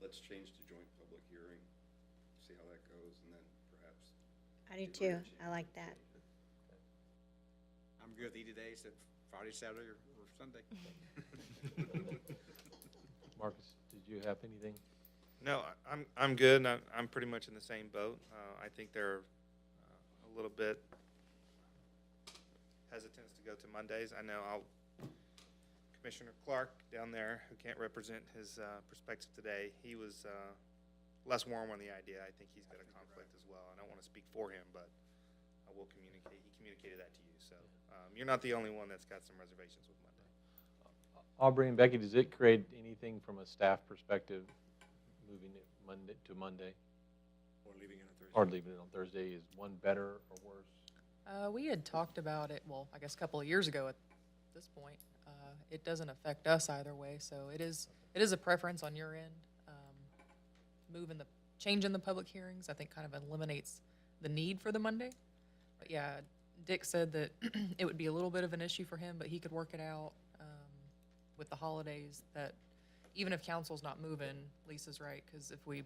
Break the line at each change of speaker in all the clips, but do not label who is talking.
let's change to joint public hearing, see how that goes, and then perhaps.
I do
do
too.
what
I like that.
I'm good either day, except Friday, Saturday, or or Sunday.
Marcus, did you have anything?
No, I- I'm, I'm good, and I'm, I'm pretty much in the same boat. Uh, I think they're uh, a little bit hesitant to go to Mondays. I know I'll, Commissioner Clark down there, who can't represent his uh, perspective today, he was uh, less warm on the idea. I think he's got a conflict as well. I don't want to speak for him, but I will communicate, he communicated that to you, so. um, You're not the only one that's got some reservations with Monday.
Aubrey and Becky, does it create anything from a staff perspective, moving it Monday to Monday? Or leaving it on Thursday? Or leaving it on Thursday, is one better or worse?
Uh, we had talked about it, well, I guess a couple of years ago at this point. Uh, it doesn't affect us either way, so it is, it is a preference on your end. Um, Moving the, changing the public hearings, I think kind of eliminates the need for the Monday. But yeah, Dick said that it would be a little bit of an issue for him, but he could work it out, um, with the holidays that even if council's not moving, Lisa's right, because if we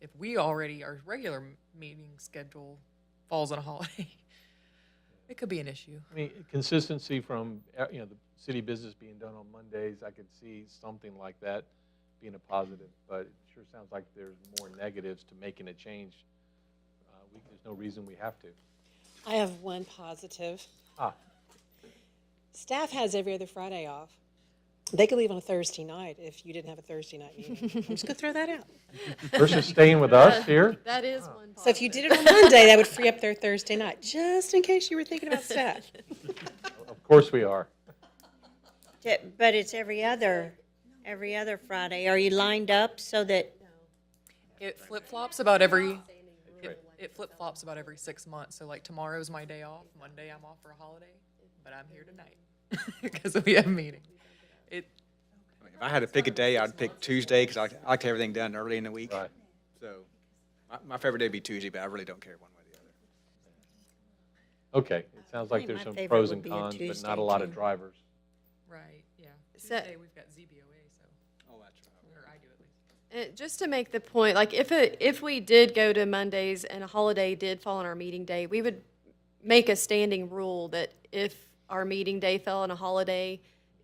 if we already, our regular m- meeting schedule falls on a holiday, it could be an issue.
I mean, consistency from, uh, you know, the city business being done on Mondays, I could see something like that being a positive, but it sure sounds like there's more negatives to making a change. Uh, we- There's no reason we have to.
I have one positive.
Ah,
Staff has every other Friday off. They could leave on a Thursday night if you didn't have a Thursday night meeting. I'm just gonna throw that out.
versus staying with us here?
That is one
So if you
positive.
did it on Monday, that would free up their Thursday night, just in case you were thinking about staff.
Of course we are.
T- But it's every other, every other Friday. Are you lined up so that,
It flip flops about every, it, it flip flops about every six months. So like tomorrow's my day off, Monday I'm off for a holiday, but I'm here tonight because we have a meeting. It,
If I had to pick a day, I'd pick Tuesday, because I, like- I like to have everything done early in the week.
Right.
So, my, my favorite day would be Tuesday, but I really don't care one way or the other.
Okay, it sounds like
think
there's
Uh, my
some
favorite
pros
would
and
be a
cons, but
Tuesday,
not a lot
too.
of drivers.
right, yeah.
So-
Tuesday, we've got ZBOA, so,
Oh, that's right.
or I do at least.
Uh, Just to make the point, like if it, if we did go to Mondays and a holiday did fall on our meeting day, we would make a standing rule that if our meeting day fell on a holiday,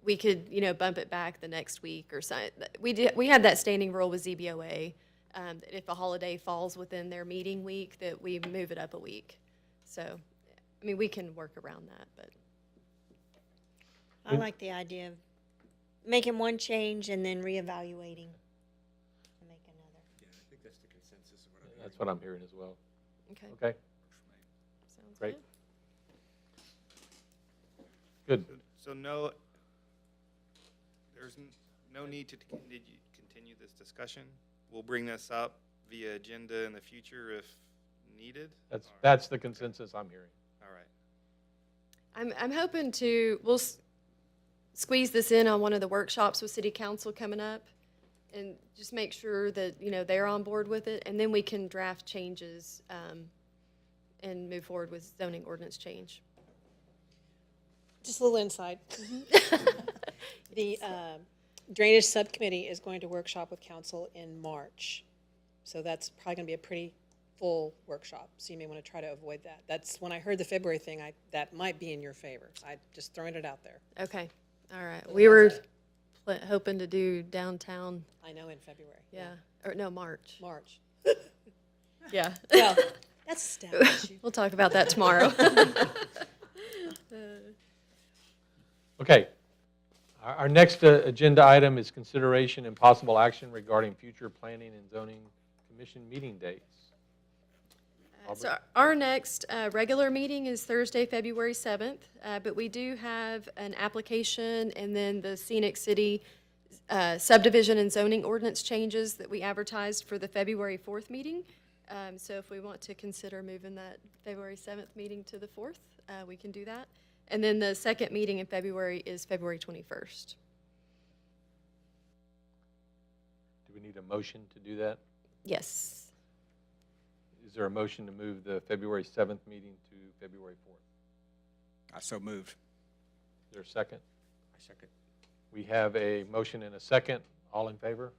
we could, you know, bump it back the next week or something. We did, we had that standing rule with ZBOA, um, that if a holiday falls within their meeting week, that we move it up a week. So, I mean, we can work around that, but.
I like the idea of making one change and then reevaluating to make another.
That's what I'm hearing as well.
Okay.
Okay,
sounds
great.
good.
Good.
So no, there's n- no need to continue, continue this discussion. We'll bring this up via agenda in the future if needed.
That's,
All right.
that's the consensus I'm hearing.
All right.
I'm, I'm hoping to, we'll s- squeeze this in on one of the workshops with city council coming up and just make sure that, you know, they're on board with it, and then we can draft changes, um, and move forward with zoning ordinance change.
Just a little insight. Mm-hmm. The um, Drainage Subcommittee is going to workshop with council in March. So that's probably gonna be a pretty full workshop, so you may wanna try to avoid that. That's, when I heard the February thing, I, that might be in your favor. I just throwing it out there.
Okay, all right. We were pl- hoping to do downtown,
I know in February.
yeah, or no, March.
March.
Yeah,
Well, that's a staff issue.
we'll talk about that tomorrow.
Okay. Our, our next uh, agenda item is consideration and possible action regarding future planning and zoning commission meeting dates.
So our next uh, regular meeting is Thursday, February 7th, uh, but we do have an application and then the Scenic City uh, subdivision and zoning ordinance changes that we advertised for the February 4th meeting. Um, So if we want to consider moving that February 7th meeting to the 4th, uh, we can do that. And then the second meeting in February is February 21st.
Do we need a motion to do that?
Yes.
Is there a motion to move the February 7th meeting to February 4th?
I so moved.
Is there a second?
I second.
We have a motion and a second. All in favor?